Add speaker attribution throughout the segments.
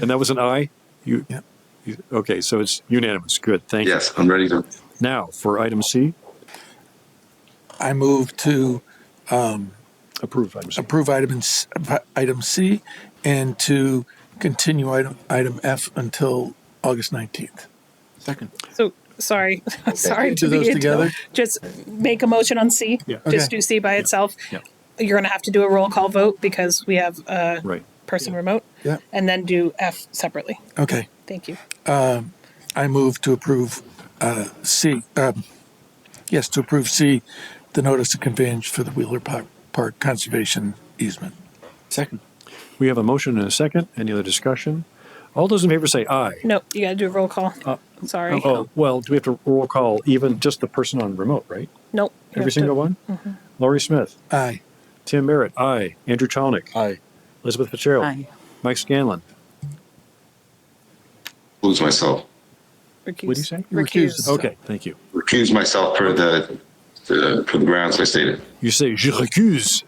Speaker 1: And that was an aye? You,
Speaker 2: Yeah.
Speaker 1: you- okay, so it's unanimous. Good, thank you.
Speaker 3: Yes, I'm ready to.
Speaker 1: Now, for item C,
Speaker 2: I move to
Speaker 1: approve item C.
Speaker 2: approve item, s- item C and to continue item, item F until August 19th.
Speaker 4: Second.
Speaker 5: So, sorry, sorry
Speaker 2: Do
Speaker 5: to
Speaker 2: those
Speaker 5: be,
Speaker 2: together?
Speaker 5: just make a motion on C.
Speaker 1: Yeah.
Speaker 2: Okay.
Speaker 5: Just do C by itself.
Speaker 4: Yeah.
Speaker 5: You're gonna have to do a roll call vote because we have a
Speaker 1: Right.
Speaker 5: person remote.
Speaker 2: Yeah.
Speaker 5: And then do F separately.
Speaker 2: Okay.
Speaker 5: Thank you.
Speaker 2: I move to approve uh, C, um, yes, to approve C, the notice of conveyance for the Wheeler Park Park Conservation easement.
Speaker 4: Second.
Speaker 1: We have a motion and a second. Any other discussion? All those in favor say aye.
Speaker 5: No, you gotta do a roll call. Sorry.
Speaker 1: Oh, well, do we have to roll call even just the person on remote, right?
Speaker 5: Nope. you
Speaker 1: Every
Speaker 5: have to-
Speaker 1: single one? Laurie Smith,
Speaker 2: Aye.
Speaker 1: Tim Merritt, aye. Andrew Chalnick,
Speaker 4: Aye.
Speaker 1: Elizabeth Fitzgerald,
Speaker 6: Aye.
Speaker 1: Mike Scanlon.
Speaker 3: Lose myself.
Speaker 5: recuse.
Speaker 1: What do you say?
Speaker 2: You recuse Oh.
Speaker 5: Recuse.
Speaker 2: yourself.
Speaker 1: Okay, thank you.
Speaker 3: Recuse myself per the, the per the grounds I stated.
Speaker 1: You say je recuse.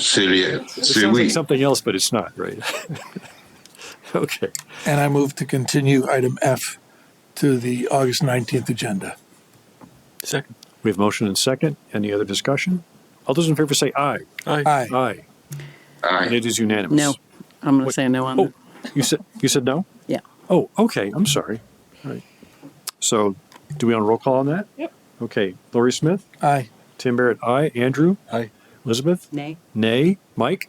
Speaker 3: Celia,
Speaker 1: It sounds like
Speaker 3: Celia.
Speaker 1: something else, but it's not, right? okay.
Speaker 2: And I move to continue item F to the August 19th agenda.
Speaker 4: Second.
Speaker 1: We have motion and second. Any other discussion? All those in favor say aye.
Speaker 4: Aye.
Speaker 2: Aye.
Speaker 1: Aye. And
Speaker 3: Aye.
Speaker 1: it is unanimous.
Speaker 6: No, I'm going to say no on
Speaker 1: Oh,
Speaker 6: it.
Speaker 1: you said you said no.
Speaker 6: Yeah.
Speaker 1: Oh, okay. I'm sorry. All right. So, do we on roll call on that?
Speaker 5: Yep.
Speaker 1: Okay. Lori Smith,
Speaker 2: Aye.
Speaker 1: Tim Barrett, aye. Andrew,
Speaker 4: Aye.
Speaker 1: Elizabeth,
Speaker 6: Nay.
Speaker 1: nay. Mike.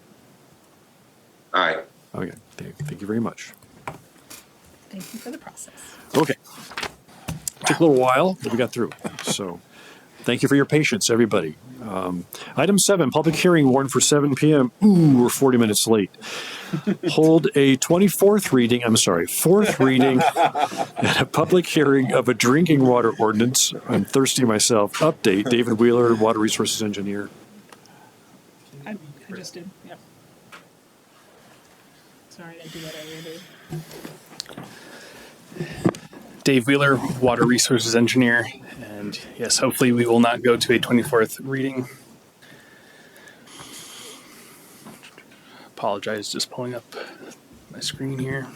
Speaker 3: Aye.
Speaker 1: Okay. Thank, thank you very much.
Speaker 5: Thank you for the process.
Speaker 1: Okay. Took a little while, but we got through. So, thank you for your patience, everybody. Um, item seven, public hearing warned for 7 p.m. Ooh, we're 40 minutes late. Hold a 24th reading, I'm sorry, fourth reading at a public hearing of a drinking water ordinance. I'm thirsty myself. Update David Wheeler, Water Resources Engineer.
Speaker 5: I I just did, yep. Sorry, I do that every day.
Speaker 7: Dave Wheeler, Water Resources Engineer. And yes, hopefully we will not go to a 24th reading. Apologize, just pulling up my screen here.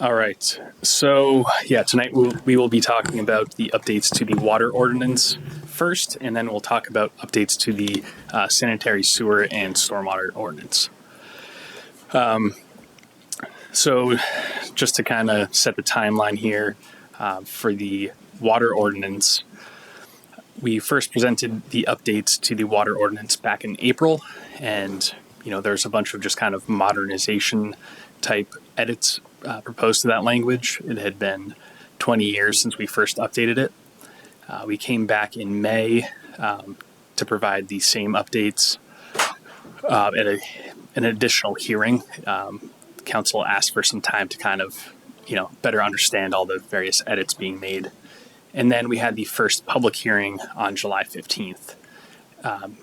Speaker 7: All right. So, yeah, tonight we'll, we will be talking about the updates to the water ordinance first, and then we'll talk about updates to the uh, sanitary sewer and stormwater ordinance. Um, so, just to kind of set the timeline here uh, for the water ordinance, we first presented the updates to the water ordinance back in April, and you know there's a bunch of just kind of modernization type edits uh, proposed to that language. It had been 20 years since we first updated it. Uh, we came back in May um, to provide the same updates uh, at a, an additional hearing. Um, council asked for some time to kind of you know better understand all the various edits being made and then we had the first public hearing on July 15th. Um,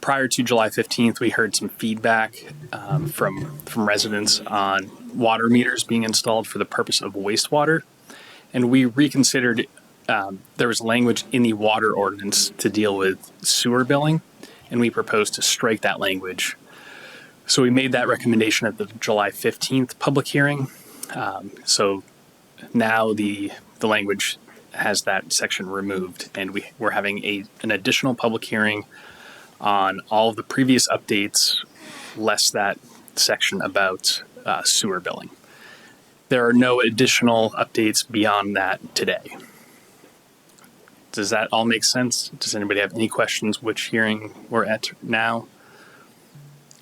Speaker 7: prior to July 15th, we heard some feedback um, from from residents on water meters being installed for the purpose of wastewater, and we reconsidered. Um, there was language in the water ordinance to deal with sewer billing, and we proposed to strike that language. So we made that recommendation at the July 15th public hearing. Um, so now the the language has that section removed, and we we're having a an additional public hearing on all of the previous updates, less that section about uh, sewer billing. There are no additional updates beyond that today. Does that all make sense? Does anybody have any questions? Which hearing we're at now?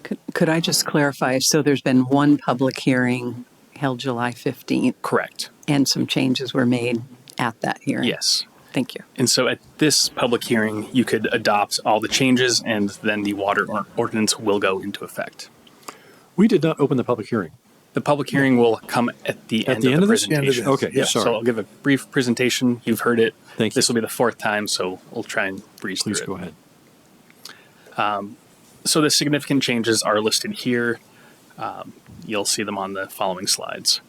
Speaker 6: Could, could I just clarify? So there's been one public hearing held July 15th,
Speaker 7: Correct.
Speaker 6: and some changes were made at that hearing.
Speaker 7: Yes.
Speaker 6: Thank you.
Speaker 7: And so at this public hearing, you could adopt all the changes, and then the water or- ordinance will go into effect.
Speaker 1: We did not open the public hearing.
Speaker 7: The public hearing will come at the
Speaker 1: At
Speaker 7: end
Speaker 1: the
Speaker 7: of
Speaker 1: end
Speaker 7: the
Speaker 1: of this?
Speaker 2: End of
Speaker 7: presentation.
Speaker 1: this. Okay,
Speaker 7: yeah.
Speaker 1: sorry.
Speaker 7: So I'll give a brief presentation. You've heard it.
Speaker 1: Thank you.
Speaker 7: This will be the fourth time, so we'll try and breeze
Speaker 1: Please
Speaker 7: through
Speaker 1: go
Speaker 7: it.
Speaker 1: ahead.
Speaker 7: So the significant changes are listed here. Um, you'll see them on the following slides.